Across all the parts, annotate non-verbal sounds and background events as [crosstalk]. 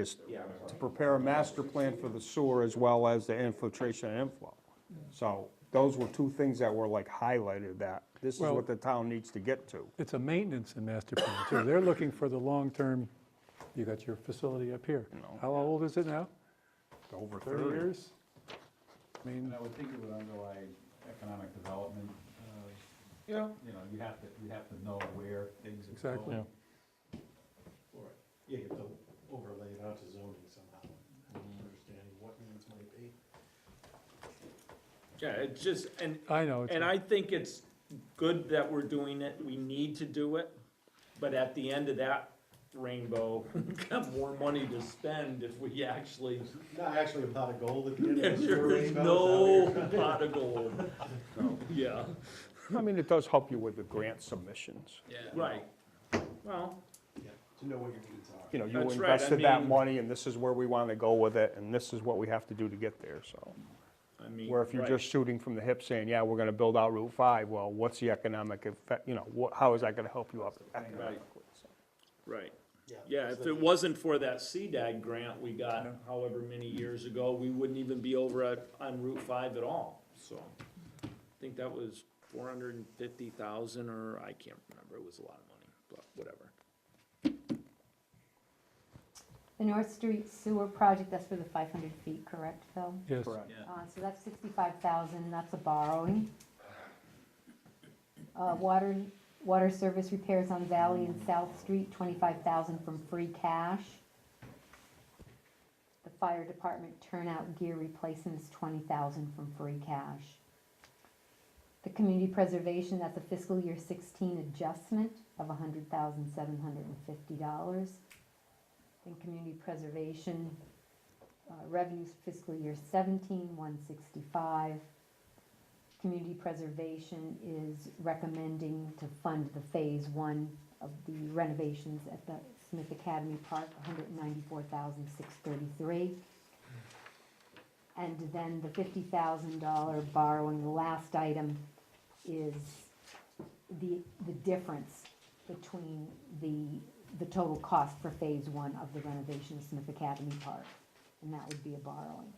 is to prepare a master plan for the sewer as well as the infiltration and inflow. So those were two things that were like highlighted that this is Well- what the town needs to get to. It's a maintenance and master plan too. They're looking for the long-term, you got your facility up here. How old is it now? Over 30 years? I mean, And I would think it would underlie economic development, uh, Yeah. you know, you have to, you have to know where things are going. exactly. Or, yeah, you have to overlay it onto zoning somehow, understanding what needs might be. Yeah, it's just, and, I know, it's and a- I think it's good that we're doing it, we need to do it, but at the end of that rainbow, [laughs] we've got more money to spend if we actually, Not actually a pot of gold at the end of the sewer there is rainbow, no is that what you're- pot of gold. Yeah, I mean, it does help you with the grant submissions. right, well, Yeah, To know what your needs are. You know, you That's right, I invested that mean- money and this is where we want to go with it and this is what we have to do to get there, so. I mean. Where if you're right. just shooting from the hip saying, yeah, we're gonna build out Route five, well, what's the economic effect, you know, what, how is that gonna help you up economically? so. Right, Yeah. yeah, if so it wasn't for that CDAG grant we got however many years ago, we wouldn't even be over at, on Route five at all, so. I think that was four hundred and fifty thousand, or I can't remember, it was a lot of money, but whatever. The North Street sewer project, that's for the five hundred feet, correct, Phil? yes. Correct. Uh, so that's sixty-five thousand, and that's a borrowing. Uh, water, water service repairs on Valley and South Street, twenty-five thousand from free cash. The fire department turnout gear replacement is twenty thousand from free cash. The community preservation, that's a fiscal year sixteen adjustment of hundred thousand seven hundred and fifty dollars. Then community preservation, uh, revenues fiscal year seventeen, one sixty-five. Community preservation is recommending to fund the phase one of the renovations at the Smith Academy Park, $194,633, And then the fifty thousand dollar borrowing, the last item is the, the difference between the, the total cost for phase one of the renovation of Smith Academy Park. And that would be a borrowing.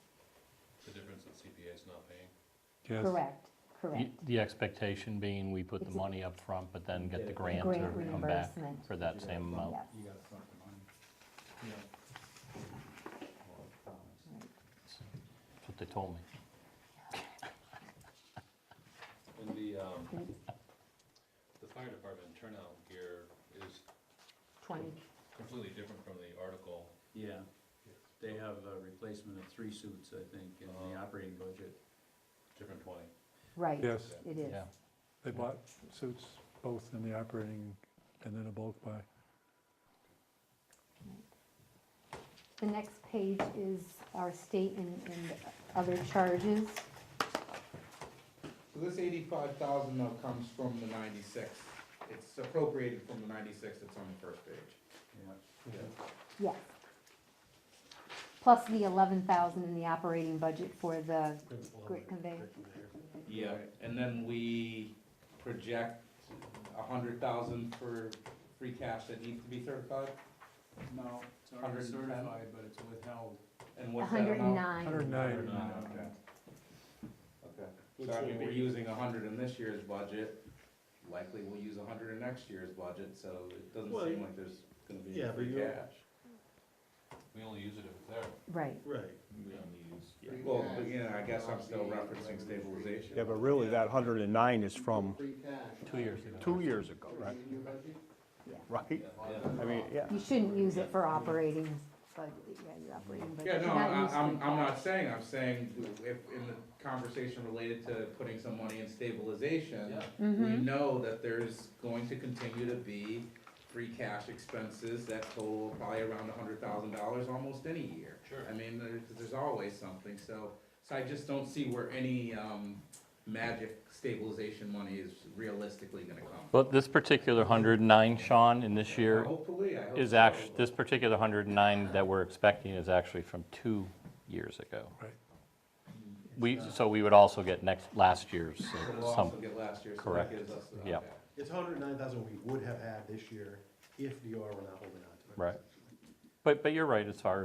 The difference that CPA is not paying? Yes. Correct, correct. Y- The expectation being we put the It's a- money up front, but then get the The grant grant or come back reimbursement. for that same amount. Yes. You gotta front the money. Or promise. That's what they told me. And the, um, Right. the fire department turnout gear is Twenty, completely different from the article. Yeah, they have a replacement of three suits, I think, in the operating budget. Uh-huh. Different twenty. right, Yes, it is. Yeah. they bought suits both in the operating and then a bulk buy. The next page is our state and, and other charges. So this eighty-five thousand though comes from the ninety-six. It's appropriated from the ninety-six that's on the first page. Yeah. Yes. Plus the eleven thousand in the operating budget for the Oh, grid conveyor. Yeah, and then we project a hundred thousand for free cash that needs to be certified, No, it's Hundred already and ten? certified, but it's withheld. and A what's that hundred and nine, amount? 109, Oh, Okay. Which Okay, so I mean, will we're be- using a hundred in this year's budget, likely we'll use a hundred in next year's budget, so it doesn't Well, seem like there's gonna be Yeah, any but free you're- cash. We only use it if it's there. right. Right. We only use. Well, but yeah, I guess I'm still referencing stabilization. Yeah, but really that hundred and nine is from Two years ago. two years ago, right? Right? I mean, yeah. You shouldn't use it for operating budget, yeah, your operating budget. Yeah, no, You're not I- used to I'm, I'm that. not saying, I'm saying if, in the conversation related to putting some money in stabilization, Mm-hmm. we know that there's going to continue to be free cash expenses that total probably around a hundred thousand dollars almost any year. Sure. I mean, there's, there's always something, so, so I just don't see where any, um, magic stabilization money is realistically gonna come. But this particular 109, Sean, in this year Hopefully, I hope. is so, actually, but- this particular 109 that we're expecting is actually from two years ago. Right. We, so we would also get next, last year's, uh, But We'll also some, get last year, so that correct, gives us. uh, the- yeah. okay. It's hundred and nine thousand we would have had this year if DR were not holding on to it. right? But, but you're right, as far